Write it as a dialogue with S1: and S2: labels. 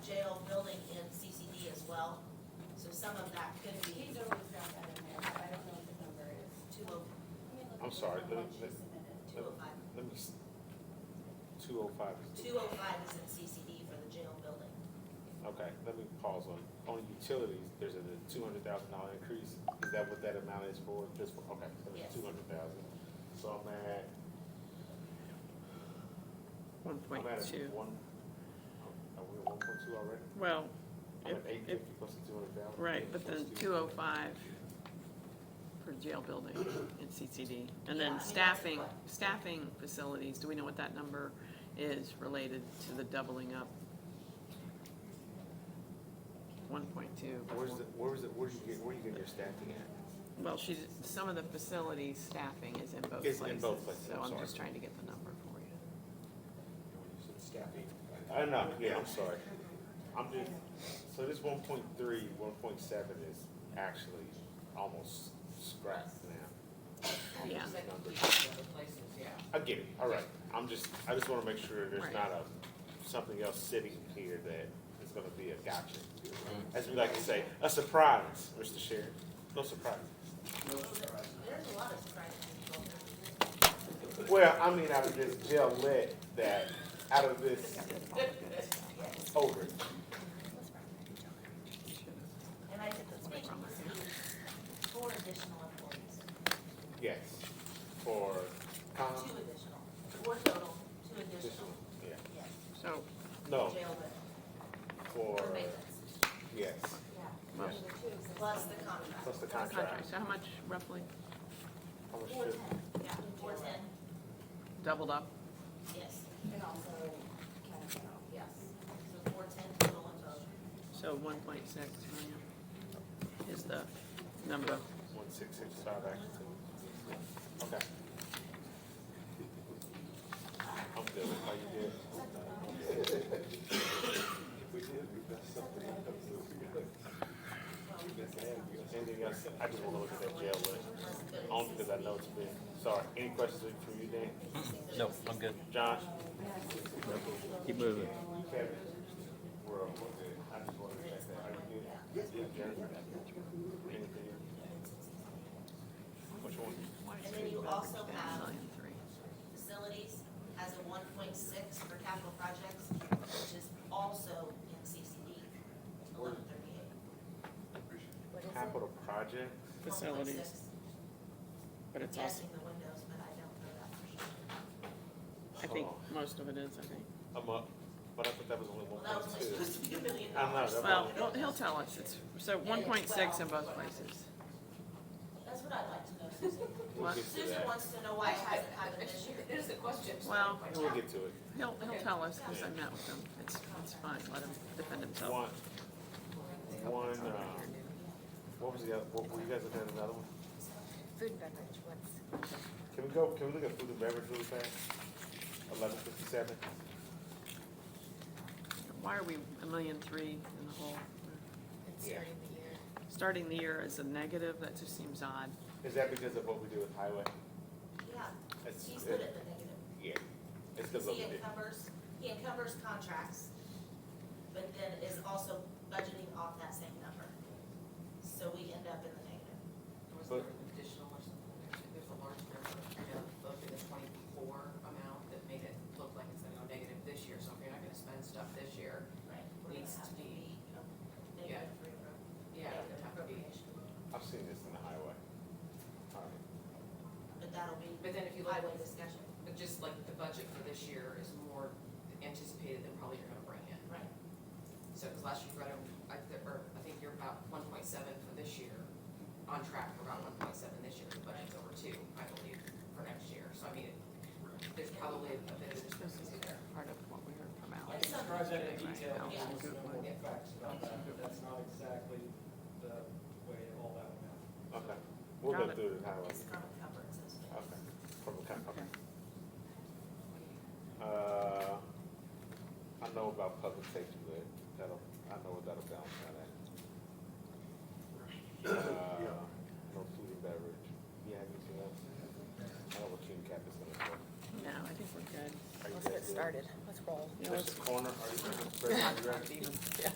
S1: some of that could be
S2: He's always got that in there, but I don't know what the number is.
S1: two oh,
S2: Let me look
S3: I'm
S2: at the
S3: sorry,
S2: one
S3: the-
S2: she
S3: the-
S2: submitted.
S1: two oh five.
S3: Let me, two oh five is,
S1: Two oh five is in CCD for the jail building.
S3: okay, let me pause on, on utilities, there's a two hundred thousand dollar increase. Is that what that amount is for, just for, okay, so
S1: Yes.
S3: it's two hundred thousand. So I'm at,
S4: One
S3: I'm
S4: point
S3: at a
S4: two.
S3: one, oh, are we at one point two already?
S4: Well,
S3: I'm at
S4: If-
S3: eight
S4: if-
S3: fifty plus the two hundred thousand.
S4: right, but then two oh five for jail building in CCD. And
S1: Yeah, I mean,
S4: then
S1: that's
S4: staffing,
S1: what-
S4: staffing facilities, do we know what that number is related to the doubling up? One point two.
S3: Where's the, where's the, where's you get, where you getting your staffing at?
S4: Well, she's, some of the facilities staffing is in both
S3: Is
S4: places.
S3: in both places,
S4: So
S3: I'm
S4: I'm
S3: sorry.
S4: just trying to get the number for you.
S3: I know, yeah, I'm sorry. I'm just, so this one point three, one point seven is actually almost scrapped now.
S4: Yeah.
S3: Almost numbers. I get it, all right. I'm just, I just wanna make sure there's
S4: Right.
S3: not a, something else sitting here that is gonna be a gotcha. As we like to say, a surprise, Mr. Sheriff. No surprise.
S1: There's a lot of surprises in jail.
S3: Well, I mean, out of this jail lit that, out of this, over.
S1: And I did the thing, four additional employees,
S3: Yes, for Con.
S1: two additional, four total, two additional,
S3: Yeah,
S1: yes,
S4: So,
S3: no,
S1: jail building,
S3: for,
S1: for maintenance,
S3: yes,
S1: yeah.
S4: well,
S3: Yes.
S1: Plus the contract.
S3: plus the
S4: contract,
S3: contract.
S4: so how much roughly
S3: How much
S1: Four
S3: did-
S1: ten, yeah, four ten,
S4: doubled up?
S1: yes,
S2: And also, kind of,
S1: yes. So four ten total in total.
S4: So one point six million is the number.
S3: One six six five Atkinson. Okay. I'm good, how you did? Anything else, I just wanna look at that jail list, only because I know it's been, sorry, any questions from you, Dan?
S5: No, I'm good.
S3: Josh?
S5: Keep moving.
S3: Kevin? We're, all good. I just wanted to check that, are you good? Jennifer? Anything? Which one?
S1: And then you also have
S4: Million three.
S1: facilities has a one point six for capital projects, which is also in CCD, eleven thirty-eight.
S3: Capital project?
S4: Facilities, but it's also,
S1: Guessing the windows, but I don't know that for sure.
S4: I think most of it is, I think.
S3: I'm up, but I thought that was only
S1: Well,
S3: one
S1: that was
S3: point
S1: only
S3: two.
S1: supposed to be a million
S3: I'm not-
S1: dollars.
S4: Well, he'll- he'll tell us, it's, so one point six in both places.
S1: That's what I'd like to know, Susan.
S3: We'll get to
S1: Susan
S3: that.
S1: wants to know why it hasn't happened this year.
S2: There's a question.
S4: Well,
S3: We'll get to it.
S4: he'll, he'll tell us, because I met with him, it's, it's fine, let him defend himself.
S3: One, one, uh, what was the other, what, were you guys looking at another one?
S6: Food and beverage, what's?
S3: Can we go, can we look at food and beverage really fast? Eleven fifty-seven?
S4: Why are we a million three in the hole?
S6: It's
S3: Yeah.
S6: starting the year.
S4: Starting the year as a negative, that just seems odd.
S3: Is that because of what we do with highway?
S1: Yeah,
S3: It's-
S1: he's good at the negative.
S3: Yeah, it's because of what
S1: He
S3: we did.
S1: encumbers, he encumbers contracts, but then is also budgeting off that same number. So we end up in the negative.
S7: Was there an additional or something? Actually, There's a large number, I know, look at the twenty-four amount that made it look like it's gonna go negative this year, so if you're not gonna spend stuff this year,
S1: Right.
S7: We're gonna
S1: Needs to
S7: have to
S1: be a
S7: Yeah.
S1: negative three pro-
S7: yeah, it would
S1: negative
S7: have to be.
S1: appropriation.
S3: I've seen this in the highway. All right.
S1: But that'll be
S7: But then if you look,
S1: highway discussion,
S7: but just like the budget for this year is more anticipated than probably you're gonna bring in.
S1: right?
S7: So, cause last year you brought in, I, th- or I think you're about one point seven for this year, on track for about one point seven this year, the budget's over two, I believe, for next year, so I mean, it- there's probably a bit of a
S4: This is
S7: discrepancy there.
S4: part of what we heard from Al.
S1: It's not-
S8: Project
S4: Right,
S8: detail,
S4: Al's
S8: there's
S4: in good
S8: no
S4: one.
S8: more facts about that, but that's not exactly the way it all that went out.
S3: Okay, we'll
S4: Got
S3: go
S4: it.
S3: through the highway.
S1: It's gonna cover it, so it's.
S3: Okay, from the county, okay. Uh, I know about public safety, but that'll, I know what that'll balance out at. Uh, no food and beverage, you have anything else? I don't know what you and Cap is gonna do.
S4: No, I think we're good.
S3: Are you
S6: Let's
S3: guys
S6: get
S3: good?
S6: started, let's roll.
S4: Yeah,
S3: Mr. Corner, are you, Mr. President, are you ready?